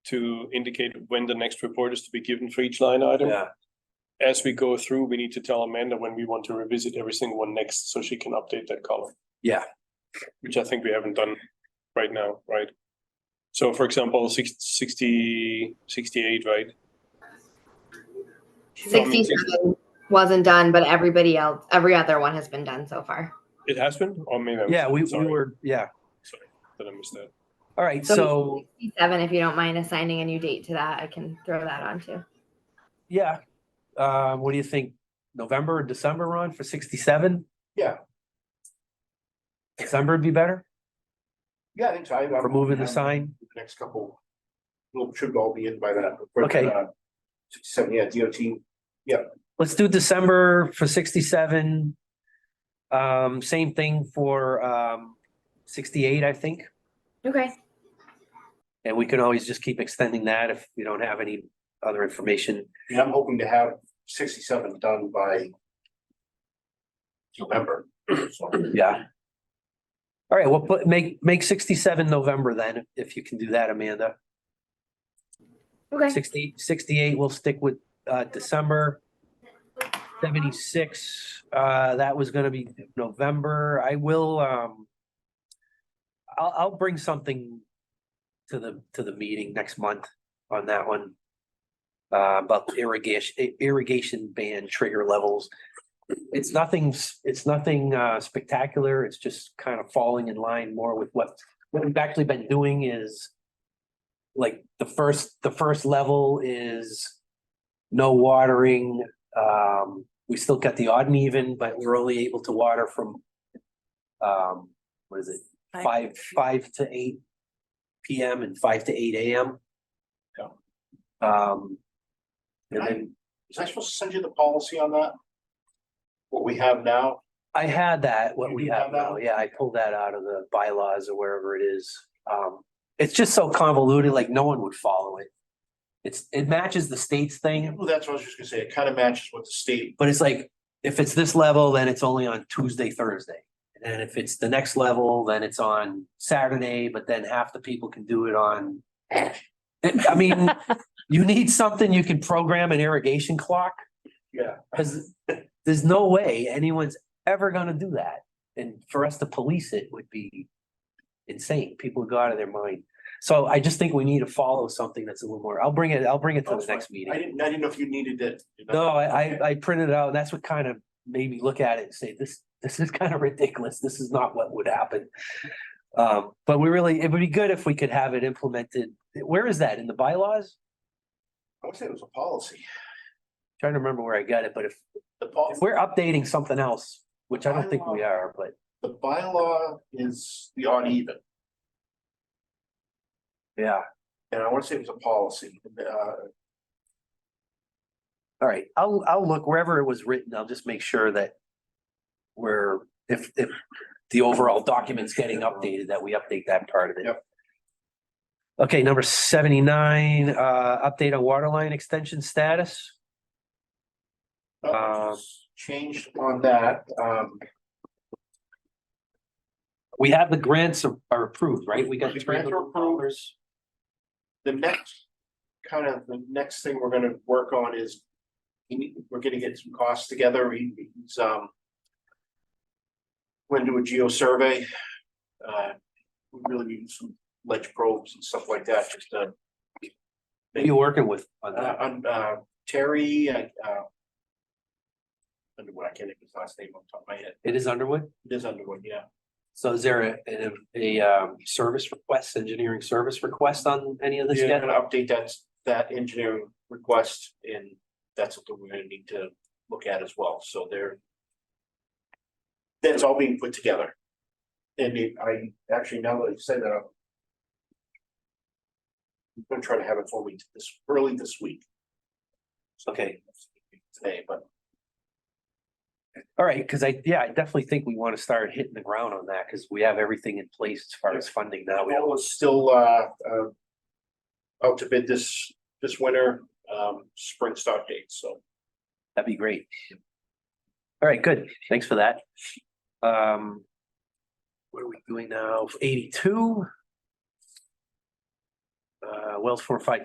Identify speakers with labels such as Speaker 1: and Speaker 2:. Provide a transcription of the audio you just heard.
Speaker 1: to indicate when the next report is to be given for each line item.
Speaker 2: Yeah.
Speaker 1: As we go through, we need to tell Amanda when we want to revisit every single one next, so she can update that column.
Speaker 2: Yeah.
Speaker 1: Which I think we haven't done right now, right? So for example, six- 60 68, right? From-
Speaker 3: Sixty-seven wasn't done, but everybody else, every other one has been done so far.
Speaker 1: It has been, or maybe. I missed
Speaker 2: Yeah,
Speaker 1: it.
Speaker 2: we, we
Speaker 1: Sorry.
Speaker 2: were, yeah.
Speaker 1: Sorry, did I miss that?
Speaker 2: All right,
Speaker 3: So-
Speaker 2: so,
Speaker 3: Sixty-seven, if you don't mind assigning a new date to that, I can throw that on too.
Speaker 2: yeah. Uh, what do you think? November or December, Ron, for sixty-seven?
Speaker 4: Yeah.
Speaker 2: December would be better
Speaker 4: Yeah, I think so. I- I'm-
Speaker 2: for moving the
Speaker 4: I'm-
Speaker 2: sign.
Speaker 4: The next couple, will should all be in by that. but,
Speaker 2: Okay.
Speaker 4: uh, Sixty-seven, yeah, DOT,
Speaker 2: Let's do December for sixty-seven. Um, same thing for, um, sixty-eight, I think.
Speaker 3: Okay,
Speaker 2: And we can always just keep extending that if we don't have any other information.
Speaker 4: and I'm hoping to have sixty-seven done by November. So,
Speaker 2: Yeah. All right, well, put, make, make sixty-seven November then, if you can do that, Amanda.
Speaker 3: okay.
Speaker 2: 60 68 sixty-eight, we'll stick with, uh, December. Seventy-six, uh, that was gonna be November. I will, um. I'll, I'll bring something to the, to the meeting next month on that one. Uh, about the irrigation, i- irrigation ban trigger levels. It's nothing, s- it's nothing, uh, spectacular. It's just kind of falling in line more with what, what we've actually been doing is like the first, the first level is no watering. Um, we still got the odd and even, but we're only able to water from um, what is it? Five, five to eight PM and five to eight AM.
Speaker 1: Yeah.
Speaker 2: Um, and
Speaker 4: Right.
Speaker 2: then
Speaker 4: Was I supposed to send you the policy on that? What we have now?
Speaker 2: I had that, what
Speaker 4: You
Speaker 2: we
Speaker 4: do
Speaker 2: have
Speaker 4: have that
Speaker 2: now.
Speaker 4: one?
Speaker 2: Yeah, I pulled that out of the bylaws or wherever it is. Um, it's just so convoluted, like no one would follow it. It's, it matches the state's thing.
Speaker 4: Well, that's what I was just gonna say. It kind of matches what the state,
Speaker 2: But it's like, if it's this level, then it's only on Tuesday, Thursday. And if it's the next level, then it's on Saturday, but then half the people can do it on. I mean, you need something you can program an irrigation clock,
Speaker 4: yeah,
Speaker 2: because there's no way anyone's ever gonna do that. And for us to police it would be insane. People would go out of their mind. So I just think we need to follow something that's a little more, I'll bring it, I'll bring it to
Speaker 4: That's
Speaker 2: the
Speaker 4: fine.
Speaker 2: next meeting.
Speaker 4: I didn't, I didn't know if you needed it.
Speaker 2: No, I, I, I printed it out. and That's what kind of made me look at it and say, this, this is kind of ridiculous. This is not what would happen. Um, but we really, it would be good if we could have it implemented. Where is that? In the bylaws?
Speaker 4: I would say it was a policy.
Speaker 2: Trying to remember where I got it, but if,
Speaker 4: The
Speaker 2: if
Speaker 4: policy,
Speaker 2: we're updating something else, which I don't think we are, but
Speaker 4: the bylaw is the odd even.
Speaker 2: yeah.
Speaker 4: And I want to say it was a policy, uh,
Speaker 2: Um, All right, I'll, I'll look wherever it was written. I'll just make sure that we're, if, if the overall document's getting updated, that we update that part of it.
Speaker 4: Yep.
Speaker 2: Okay, number seventy-nine, uh, update on water line extension status.
Speaker 4: nothing
Speaker 2: Um,
Speaker 4: was changed on that, um.
Speaker 2: We have the grants are are approved, right? We got
Speaker 4: The
Speaker 2: three
Speaker 4: grants are
Speaker 2: hundred
Speaker 4: approved.
Speaker 2: dollars.
Speaker 4: The next, kind of, the next thing we're gonna work on is. we need- We're gonna get some costs together, He- he's, um. When do a geo survey, uh, we really need some ledge probes and stuff like that, just, uh,
Speaker 2: Who you working with on
Speaker 4: uh,
Speaker 2: that?
Speaker 4: on, uh, Terry, uh. uh, Underwood, I can't think of his last name on top of my head,
Speaker 2: It is Underwood?
Speaker 4: it is Underwood, yeah.
Speaker 2: So is there a, a, a, um, service request, engineering service request on any of this
Speaker 4: Yeah,
Speaker 2: yet?
Speaker 4: gonna update that, that engineering request and that's something we're gonna need to look at as well, so there. That's all being put together. And it- I, actually, now that you say that, I'm. I'm gonna try to have it for me this, early this week.
Speaker 2: Okay.
Speaker 4: Today, but
Speaker 2: All right, because I, yeah, I definitely think we want to start hitting the ground on that because we have everything in place as far as funding now. We
Speaker 4: That
Speaker 2: don't,
Speaker 4: was still, uh, uh. Out to bid this, this winter, um, spring start date, so.
Speaker 2: that'd be great. All right, good. Thanks for that. Um, what are we doing now? Eighty-two? Uh, Wells Farm Five